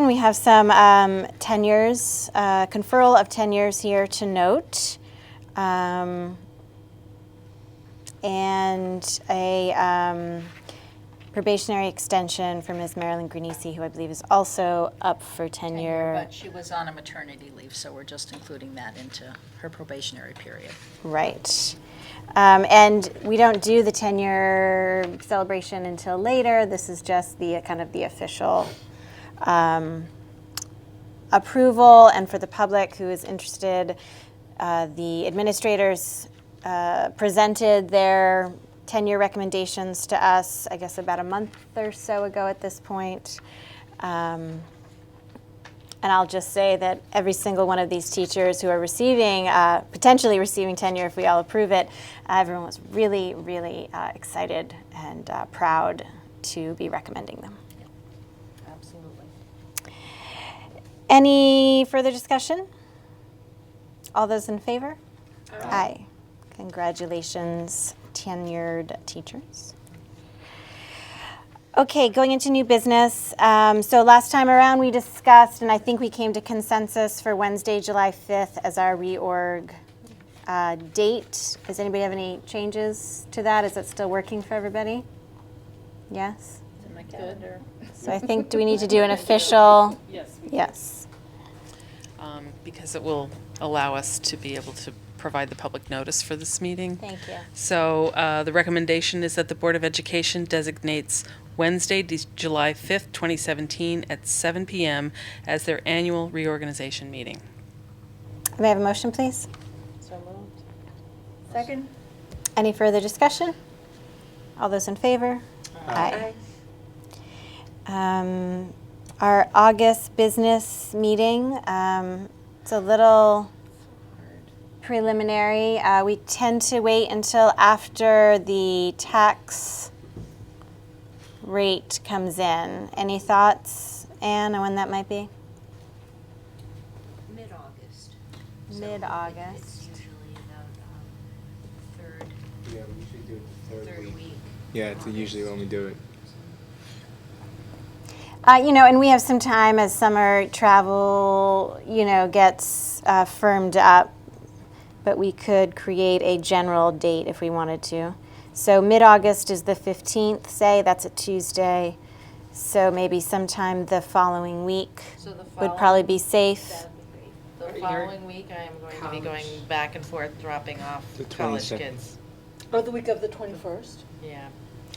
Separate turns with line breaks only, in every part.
We have some um, tenures, uh, conferral of tenures here to note, um, and a um, probationary extension for Ms. Marilyn Grunisi, who I believe is also up for tenure.
But she was on a maternity leave, so we're just including that into her probationary period.
Right. Um, and we don't do the tenure celebration until later. This is just the uh, kind of the official um, approval. And for the public who is interested, uh, the administrators uh, presented their tenure recommendations to us, I guess, about a month or so ago at this point. Um, and I'll just say that every single one of these teachers who are receiving, uh, potentially receiving tenure if we all approve it, uh, everyone was really, really uh, excited and uh, proud to be recommending them.
Absolutely.
Any further discussion? All those in favor? Aye. Congratulations, tenured teachers. Okay, going into new business. Um, so last time around, we discussed, and I think we came to consensus for Wednesday, July 5th as our reorg uh, date. Does anybody have any changes to that? Is it still working for everybody? Yes? So I think, do we need to do an official?
Yes,
Yes.
um, because it will allow us to be able to provide the public notice for this meeting.
Thank you.
So uh, the recommendation is that the Board of Education designates Wednesday, De- July 5th, 2017, at 7 p.m. as their annual reorganization meeting.
May I have a motion, please?
So moved.
Second?
Any further discussion? All those in favor? Aye. Um, Our August business meeting, um, it's a little preliminary. Uh, We tend to wait until after the tax rate comes in. Any thoughts, Anne, on when that might be?
Mid-August. So It's
Mid-August.
usually about, um, third,
Yeah, we usually do it the
third week.
Yeah, it's usually when we do it.
Uh, you know, and we have some time as summer travel, you know, gets uh, firmed up, but we could create a general date if we wanted to. So mid August is the 15th, say, that's a Tuesday. So maybe sometime the following week
So the
would probably be
following-
safe.
that'd be great. The following week, I am going to be going back and forth, dropping off
The
college
22nd.
kids.
Or the week of the 21st?
Yeah.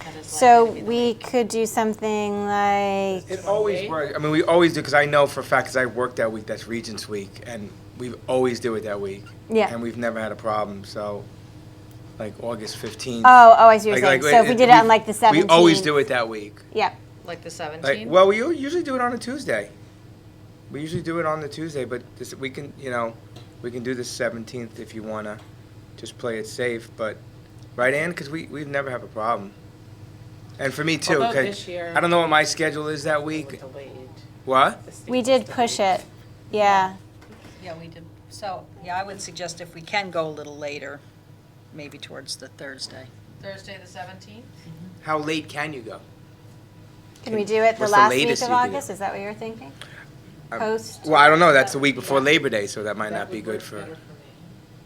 that is
So
likely to be the
we could do something like,
It always works. I mean, we always do because I know for a fact because I work that week. That's Regents Week, and we always do it that week.
Yeah.
And we've never had a problem. So, like August fifteenth.
oh, oh, I see what you're saying. So if we did it on like the 17th.
We always do it that week.
Yep.
Like the
Like,
17th?
well, we u- usually do it on a Tuesday. We usually do it on the Tuesday, but this, we can, you know, we can do the seventeenth if you wanna, just play it safe. But right, Ann, because we we've never have a problem. And for me too,
Although
'cause
this year-
I don't know what my schedule is that week. What?
We did push it. Yeah.
Yeah, we did. So, yeah, I would suggest if we can go a little later, maybe towards the Thursday.
Thursday, the 17th?
How late can you go?
Can we do it the
What's the
last week
latest
of
you can do?
August? Is that what you were thinking?
Um,
Post?
Well, I don't know. That's the week before Labor Day, so that might not be good for.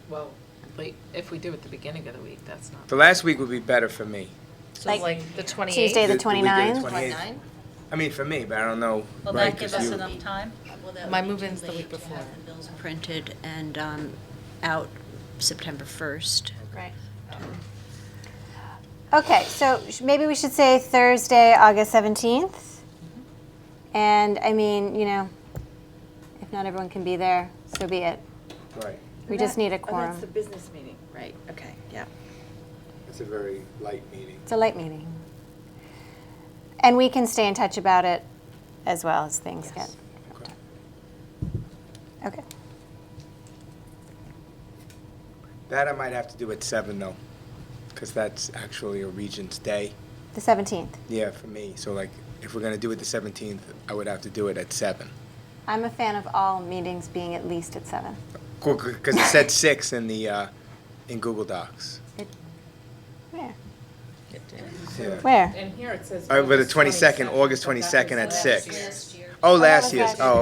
Well, like, if we do at the beginning of the week, that's not.
The last week would be better for me.
So
Like
like the 28th?
Tuesday, the
week of
29th?
28th. I mean, for me, but I don't know.
Will
right,
that give
'cause
us
you-
enough time?
Well, that
My
would be
move
too
in's the
late
week
to have
before.
the bills printed and, um, out September first.
Right. Okay, so sh- maybe we should say Thursday, August 17th. And I mean, you know, if not everyone can be there, so be it.
Right.
We just need a
Oh, that's the
quorum.
business meeting.
Right, okay, yeah.
It's a very light meeting.
It's a light meeting. And we can stay in touch about it as well as things get.
Okay.
Okay.
That I might have to do at seven though, because that's actually a Regent's Day.
The 17th.
Yeah, for me. So like, if we're gonna do it the seventeenth, I would have to do it at seven.
I'm a fan of all meetings being at least at 7.
Because it said six in the uh, in Google Docs.
Where?
Yeah.
Where?
And here it says.
All right, but the
August
twenty second,
22nd,
August
but that
twenty second at
was last
six.
year.
Last year.
Oh, last year's.
last
Oh,